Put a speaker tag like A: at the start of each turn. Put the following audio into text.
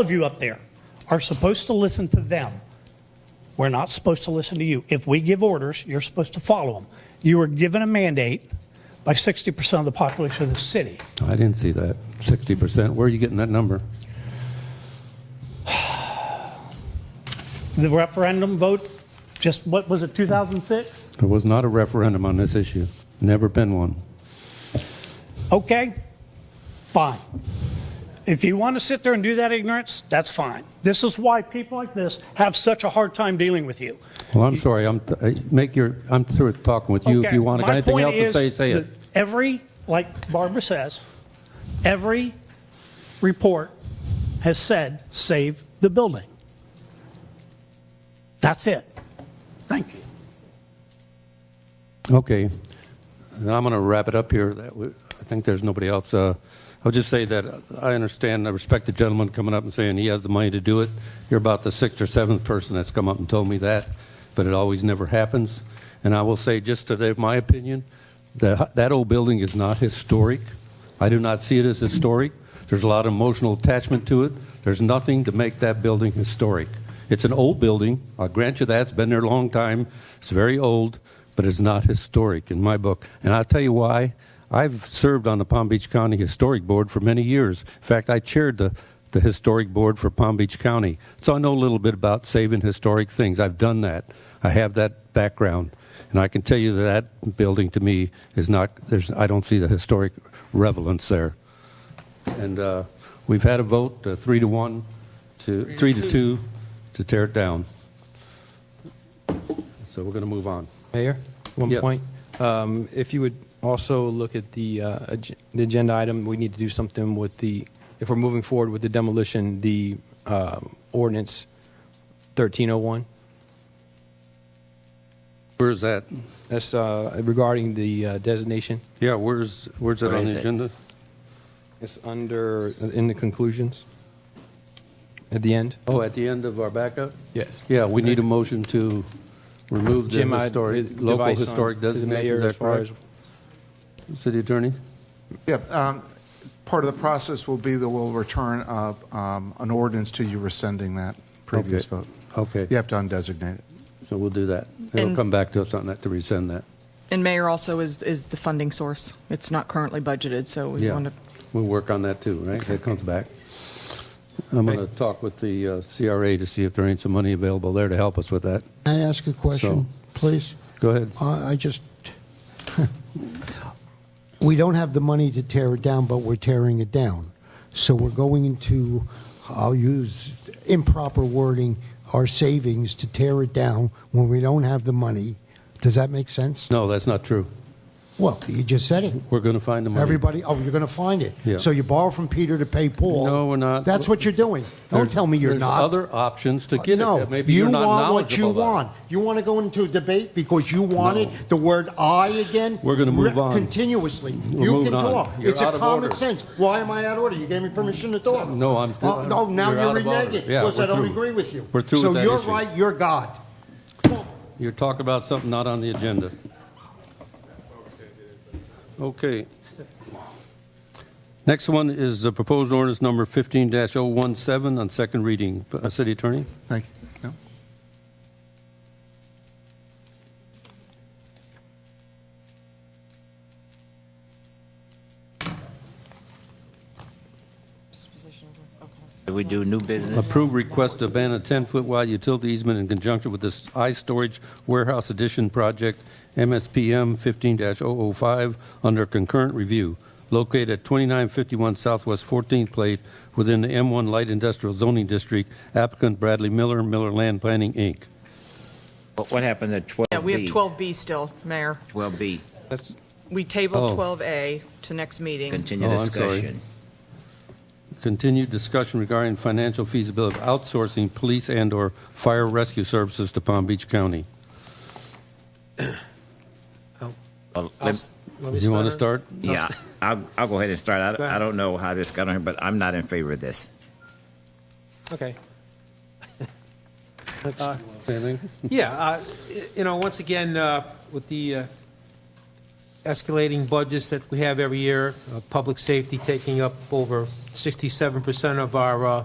A: of you up there are supposed to listen to them. We're not supposed to listen to you. If we give orders, you're supposed to follow them. You were given a mandate by 60% of the population of the city.
B: I didn't see that. Sixty percent. Where are you getting that number?
A: The referendum vote, just what was it, 2006?
B: There was not a referendum on this issue. Never been one.
A: Okay, fine. If you want to sit there and do that ignorance, that's fine. This is why people like this have such a hard time dealing with you.
B: Well, I'm sorry. I'm I- make your. I'm through with talking with you. If
A: Okay,
B: you want to
A: my
B: got anything
A: point
B: else to
A: is
B: say, say it.
A: that Every, like Barbara says, every report has said, save the building. That's it. Thank you.
B: Okay. And I'm going to wrap it up here. That we- I think there's nobody else. Uh, I'll just say that I understand, I respect the gentleman coming up and saying he has the money to do it. You're about the sixth or seventh person that's come up and told me that, but it always never happens. And I will say, just today, my opinion, that that old building is not historic. I do not see it as historic. There's a lot of emotional attachment to it. There's nothing to make that building historic. It's an old building. I'll grant you that. It's been there a long time. It's very old, but it's not historic in my book. And I'll tell you why. I've served on the Palm Beach County Historic Board for many years. In fact, I chaired the, the Historic Board for Palm Beach County. So I know a little bit about saving historic things. I've done that, I have that background. And I can tell you that that building to me is not, there's, I don't see the historic relevance there. And uh, we've had a vote, uh, three to one, to, three to two, to tear it down. So we're going to move on.
C: Mayor, one
B: Yes.
C: point. Um, If you would also look at the uh, ag- the agenda item, we need to do something with the, if we're moving forward with the demolition, the um, ordinance 1301.
B: Where's that?
C: That's uh, regarding the uh, designation.
B: Yeah, where's, where's it
C: Where
B: on
C: is
B: the
C: it?
B: agenda?
C: It's under, uh, in the conclusions, at the end.
B: Oh, at the end of our backup?
C: Yes.
B: Yeah, we need a motion to remove the
C: Jim, I-
B: historic,
C: the
B: local
C: device on
B: historic
C: to the
B: designation,
C: mayor
B: is
C: as
B: that
C: far as-
B: correct? City Attorney?
D: Yep. um, Part of the process will be that we'll return uh, um, an ordinance to you rescinding that previous
B: Okay.
D: vote.
B: Okay,
D: You have to undesignate it.
B: so we'll do that. It'll
E: And-
B: come back to us on that, to resend that.
E: And mayor also is, is the funding source. It's not currently budgeted, so we
B: Yeah,
E: want to,
B: we'll work on that too, right? That comes back. I'm going to talk with the uh, CRA to see if there ain't some money available there to help us with that.
F: Can I ask a question, please?
B: Go ahead.
F: I I just, we don't have the money to tear it down, but we're tearing it down. So we're going into, I'll use improper wording, our savings to tear it down when we don't have the money. Does that make sense?
B: No, that's not true.
F: Well, you just said it.
B: We're going to find the money.
F: Everybody, oh, you're going to find it.
B: Yeah.
F: So you borrow from Peter to pay Paul.
B: No, we're not.
F: That's what you're doing. Don't
B: There's-
F: tell me you're
B: there's
F: not.
B: other options to get it.
F: Uh, no,
B: that Maybe
F: you
B: you're not
F: want what you
B: knowledgeable about.
F: want. You want to go into a debate because you wanted
B: No.
F: the word "I" again.
B: We're gonna move
F: re-
B: on.
F: continuously.
B: We're
F: you
B: moving
F: can
B: on.
F: talk.
B: You're
F: it's
B: out
F: a
B: of
F: common
B: order.
F: sense. Why am I out of order? You gave me permission to talk.
B: No, I'm-
F: Oh, no, now
B: you're
F: you're,
B: out of order.
F: reneging
B: Yeah,
F: because
B: we're
F: I don't
B: through.
F: agree with you.
B: We're through
F: So
B: with that
F: you're
B: issue.
F: right. You're God.
B: You're talking about something not on the agenda. Okay. Next one is the proposed ordinance number 15-017 on second reading. Uh, City Attorney?
D: Thank you. No?
G: We do new business.
B: Approve request to ban a 10-foot wide utility easement in conjunction with this I-Storage Warehouse Addition Project, MSPM 15-005, under concurrent review, located at 2951 Southwest 14th Place within the M1 Light Industrial Zoning District, applicant Bradley Miller, Miller Land Planning, Inc.
G: What what happened to 12B?
E: yeah, we have 12B still, mayor.
G: 12B,
C: That's-
E: We
B: Oh.
E: tabled 12A to next meeting.
G: continue
B: Oh, I'm sorry.
G: discussion.
B: Continued discussion regarding financial feasibility of outsourcing police and/or fire rescue services to Palm Beach County.
G: Well,
H: I'll
G: let-
H: s- let
B: Do
H: me
B: you want to start?
G: Yeah, I'll, I'll go ahead and start. I, don't- I don't know how this got on here, but I'm not in favor of this.
H: Okay. Uh,
B: Same thing?
H: Yeah, uh, y- you know, once again, uh, with the uh, escalating budgets that we have every year, uh, public safety taking up over 67% of our uh,